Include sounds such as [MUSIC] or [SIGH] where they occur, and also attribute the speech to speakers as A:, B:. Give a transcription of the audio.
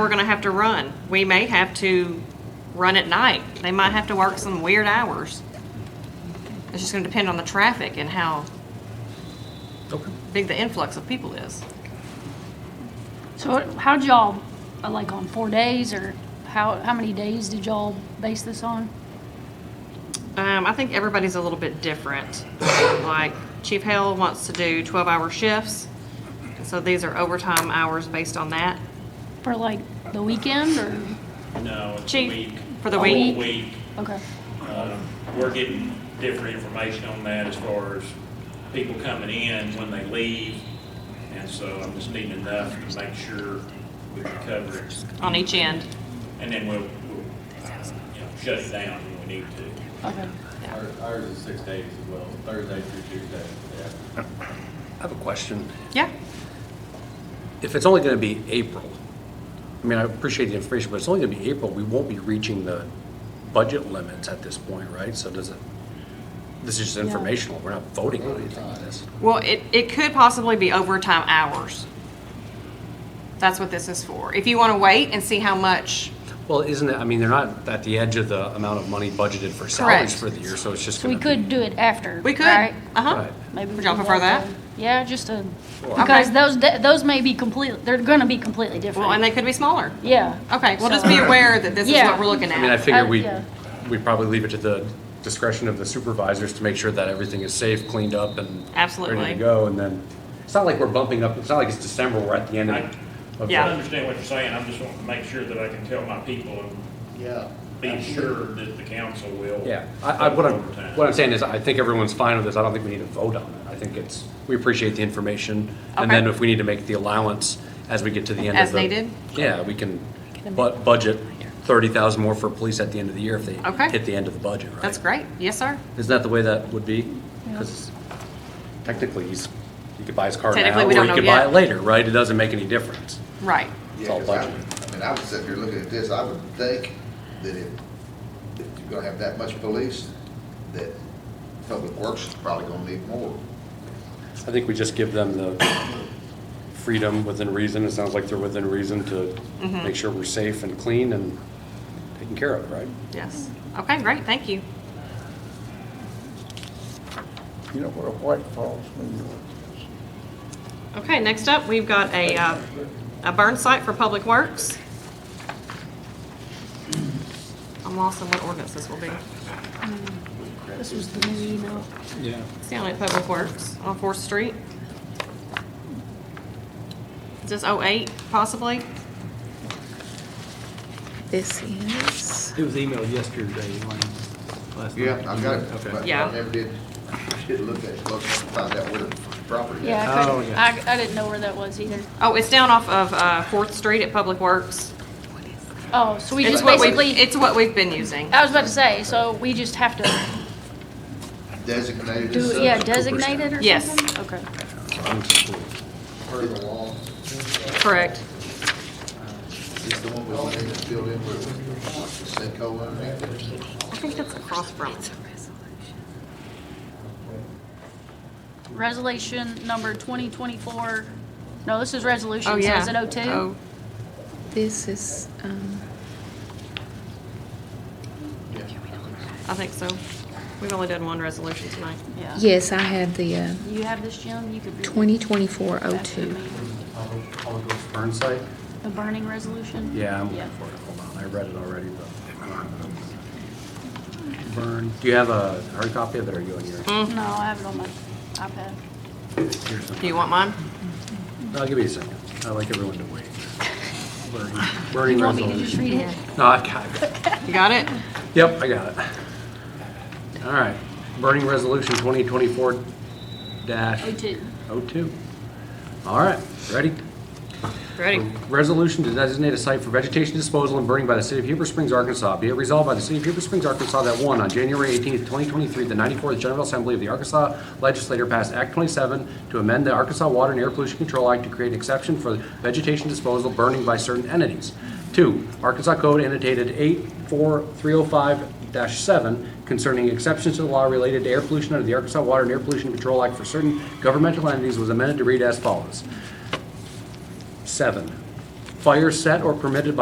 A: we're gonna have to run. We may have to run at night. They might have to work some weird hours. It's just gonna depend on the traffic and how
B: Okay.
A: big the influx of people is.
C: So how'd y'all, uh, like on four days or how, how many days did y'all base this on?
A: Um, I think everybody's a little bit different. Like Chief Hale wants to do twelve-hour shifts, and so these are overtime hours based on that.
C: For like the weekend or,
D: No, it's a
A: Chief,
D: week.
A: for the
D: A whole
A: week.
D: week.
C: okay.
D: Um, We're getting different information on that as far as people coming in, when they leave. And so I'm just needing enough to make sure we can cover it.
A: on each end.
D: And then we'll, we'll, uh, you know, shut it down when we need to.
C: Okay.
E: Ours- Ours is six days as well, Thursday through Tuesday, yeah.
B: I have a question.
A: Yeah.
B: If it's only going to be April, I mean, I appreciate the information, but it's only going to be April, we won't be reaching the budget limits at this point, right? So does it, this is just informational, we're not voting on anything on this.
A: Well, it, it could possibly be overtime hours. That's what this is for. If you want to wait and see how much,
B: Well, isn't it, I mean, they're not at the edge of the amount of money budgeted for salaries
A: Correct.
B: for the year, so it's just
C: So we
B: going to
C: could do it after,
A: we could.
C: right?
A: Uh-huh.
B: Right.
C: Maybe we
A: Would y'all
C: do
A: prefer that?
C: then. Yeah, just to,
B: Okay.
C: because those, da- those may be completely, they're gonna be completely
A: Well, and
C: different.
A: they could be smaller.
C: Yeah.
A: Okay, well, just be aware that this is
C: Yeah.
A: what we're looking
B: I mean, I
A: at.
B: figure
C: I-
B: we,
C: Uh, yeah.
B: we probably leave it to the discretion of the supervisors to make sure that everything is safe, cleaned up, and ready
A: Absolutely.
B: to go, and then, it's not like we're bumping up, it's not like it's December, we're at the end of. of the-
D: I understand what you're saying, I'm just wanting to make sure that I can tell my people and
F: Yeah.
D: be sure that the council will.
B: Yeah, I, I, what I'm,
D: Overtime.
B: what I'm saying is, I think everyone's fine with this, I don't think we need to vote on it. I think it's, we appreciate the information, and then
A: Okay.
B: if we need to make the allowance as we get to the end of the.
A: As needed?
B: Yeah, we can bu- budget thirty thousand more for police at the end of the year if they
A: Okay.
B: hit the end of the budget, right?
A: That's great. Yes, sir.
B: Isn't that the way that would be? Because technically, he's, he could buy his car now,
A: Technically, we
B: or
A: don't
B: he
A: know
B: could buy
A: yet.
B: it later, right? It doesn't make any difference.
A: Right.
B: It's
F: Yeah,
B: all
F: 'cause I
B: budget.
F: would- I mean, I would sit here looking at this, I would think that if, if you're gonna have that much police, that public works is probably gonna need more.
B: I think we just give them the freedom within reason, it sounds like they're within reason to
C: Mm-hmm.
B: make sure we're safe and clean and taken care of, right?
A: Yes. Okay, great. Thank you.
G: You know where White Falls, New York is?
A: Okay, next up, we've got a, uh, a burn site for Public Works. I'm lost on what ordinance this will be.
C: This was the new email.
A: It's down at Public Works on Fourth Street. Is this oh-eight possibly?
H: This is,
I: It was emailed yesterday, Lane, last night.
F: Yeah, I've got it,
I: Okay.
F: but
A: Yeah.
F: I never did, did look at it close and find out where the property is.
C: Yeah, I
I: Oh,
C: couldn't,
I: yeah.
C: I, I didn't know where that was either.
A: Oh, it's down off of, uh, Fourth Street at Public Works.
C: Oh, so we
A: It's
C: just
A: what we've,
C: basically, Oh.
A: it's what we've been using.
C: I was about to say, so we just have to
F: Designated as
C: Do, yeah,
F: such,
C: designate it or something?
A: Yes.
C: Okay.
F: part of the law.
A: Correct.
F: It's the one with the name that's filled in with the sinkhole underneath it.
A: I think that's across from.
C: Resolution number 2024, no, this is resolution,
A: Oh,
C: so
A: yeah.
C: is it 02?
A: Oh,
H: this is, um,
A: I think so. We've only done one resolution tonight.
C: Yeah.
H: yes, I have the uh,
C: You have this, Jim? You could read it.
H: 2024-02.
B: Burn site?
C: The burning resolution?
B: Yeah, I'm looking for it, hold on, I read it already, but. Burn, do you have a hard copy of it, or are you on your?
A: Mm.
C: No, I have it on my iPad.
B: yours?
A: Do you want mine?
B: I'll give you a second, I like everyone to wait. Burning-
C: [LAUGHS]
B: Burning
C: You want me to just read
B: resolution.
C: it?
B: No, I got it.
A: You got it?
B: Yep, I got it. All right, burning resolution twenty twenty-four dash
C: 02.
B: oh two. All right, ready?
A: Ready?
B: Resolution to designate a site for vegetation disposal and burning by the City of Heber Springs, Arkansas. Be it resolved by the City of Heber Springs, Arkansas that one, on January 18, 2023, the 94th General Assembly of the Arkansas Legislature passed Act 27 to amend the Arkansas Water and Air Pollution Control Act to create an exception for vegetation disposal burning by certain entities. Two, Arkansas Code annotated 84305-7 concerning exceptions to the law related to air pollution under the Arkansas Water and Air Pollution Control Act for certain governmental entities was amended to read as follows. Seven, fire set or permitted by